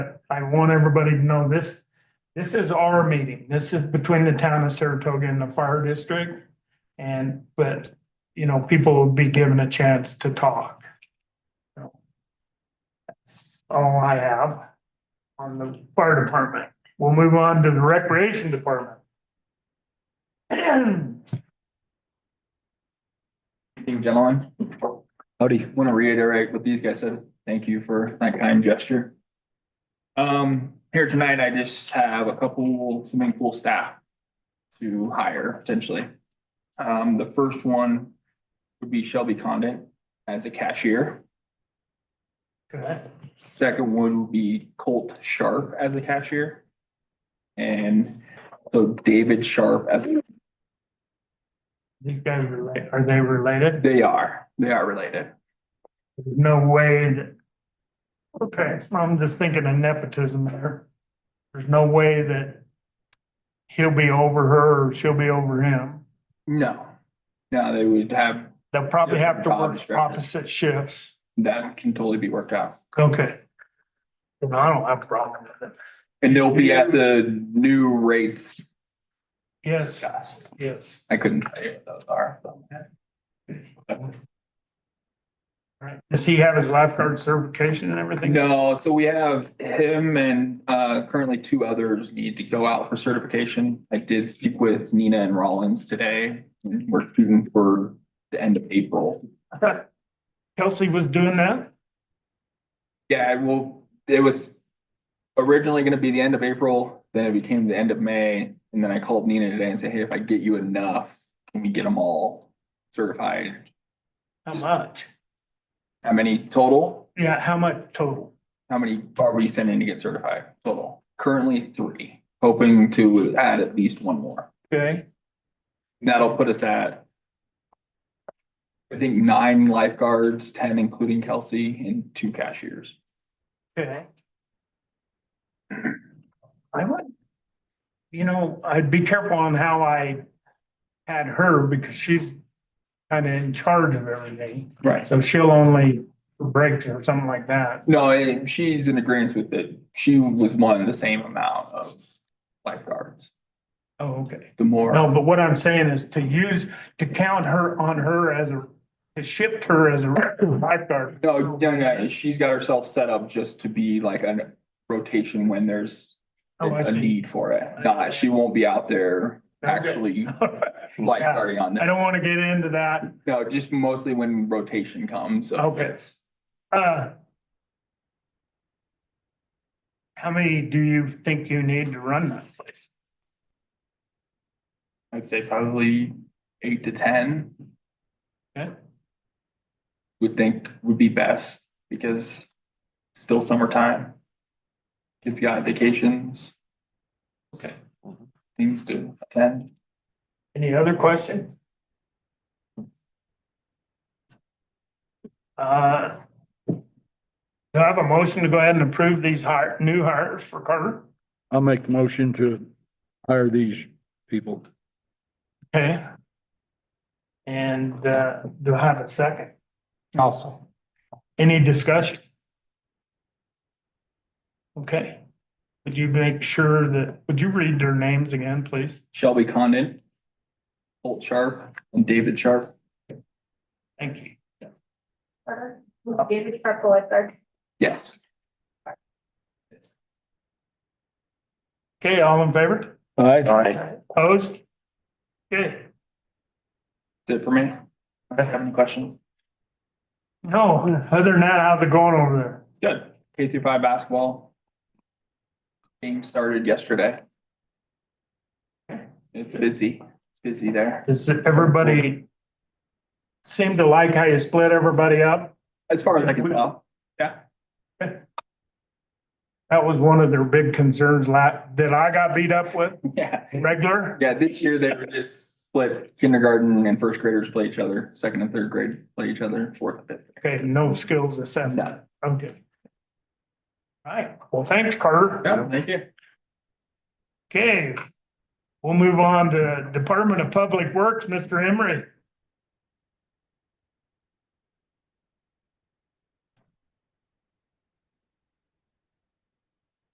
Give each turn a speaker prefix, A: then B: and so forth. A: I want everybody to know this, this is our meeting. This is between the town of Saratoga and the fire district. And, but, you know, people will be given a chance to talk. So, That's all I have on the fire department. We'll move on to the recreation department.
B: Team gentlemen,
C: Howdy.
B: want to reiterate what these guys said. Thank you for that kind gesture. Um, here tonight, I just have a couple swimming pool staff to hire potentially. Um, the first one would be Shelby Condon as a cashier.
A: Okay.
B: Second one would be Colt Sharp as a cashier. And so David Sharp as
A: These guys are like, are they related?
B: they are, they are related.
A: There's No way that. Okay, I'm just thinking of nepotism there. There's no way that. He'll be over her or she'll be over him.
B: No, no, they would have,
A: They'll probably have to
B: Job
A: work
B: description.
A: opposite shifts.
B: that can totally be worked out.
A: Okay. And I don't have a problem with it.
B: And they'll be at the new rates.
A: Yes,
B: Just,
A: yes.
B: I couldn't tell you what those are.
A: Right. Does he have his lifeguard certification and everything?
B: No, so we have him and uh currently two others need to go out for certification. I did speak with Nina and Rollins today. We're shooting for the end of April.
A: Kelsey was doing that?
B: Yeah, well, it was originally gonna be the end of April, then it became the end of May. And then I called Nina today and said, hey, if I get you enough, can we get them all certified?
A: How much?
B: How many total?
A: Yeah, how much total?
B: How many are we sending to get certified total? Currently three, hoping to add at least one more.
A: Okay,
B: That'll put us at. I think nine lifeguards, ten including Kelsey and two cashiers.
A: okay. I would. You know, I'd be careful on how I had her because she's kind of in charge of everything.
B: Right.
A: So she'll only break or something like that.
B: No, and she's in agreement with it. She was wanting the same amount of lifeguards.
A: Oh, okay.
B: The more,
A: No, but what I'm saying is to use, to count her on her as a, to shift her as a lifeguard.
B: no, no, no, she's got herself set up just to be like a rotation when there's a
A: Oh, I
B: a
A: see.
B: need for it. Not, she won't be out there
A: Okay.
B: actually
A: I
B: lifeguarding on that.
A: don't want to get into that.
B: No, just mostly when rotation comes.
A: Okay. Uh. How many do you think you need to run that place?
B: I'd say probably eight to ten.
A: Okay.
B: Would think would be best because it's still summertime. Kids got vacations.
A: Okay.
B: Things to attend.
A: Any other question? Uh. Do I have a motion to go ahead and approve these hire, new hires for Carter?
C: I'll make the motion to hire these people.
A: Okay. And, uh, do I have a second? Also. Any discussion? Okay. Would you make sure that, would you read their names again, please?
B: Shelby Condon. Holt Sharp and David Sharp.
A: Thank you.
D: Carter, who's David Sharp, the lifeguard.
B: Yes.
A: Okay, all in favor?
C: Aye.
A: Opposed? Okay,
B: That's it for me. I have any questions.
A: no, other than that, how's it going over there?
B: It's good. K through five basketball. Game started yesterday. It's busy. It's busy there.
A: Does everybody seem to like how you split everybody up?
B: As far as I can tell,
A: That was one of their big concerns la, that I got beat up with,
B: yeah,
A: regular.
B: yeah, this year they were just split kindergarten and first graders play each other, second and third grade play each other, fourth and fifth.
A: Okay, no skills assessment,
B: No.
A: okay. All right, well, thanks, Carter.
B: Yeah, thank you.
A: Okay, we'll move on to Department of Public Works, Mr. Emery.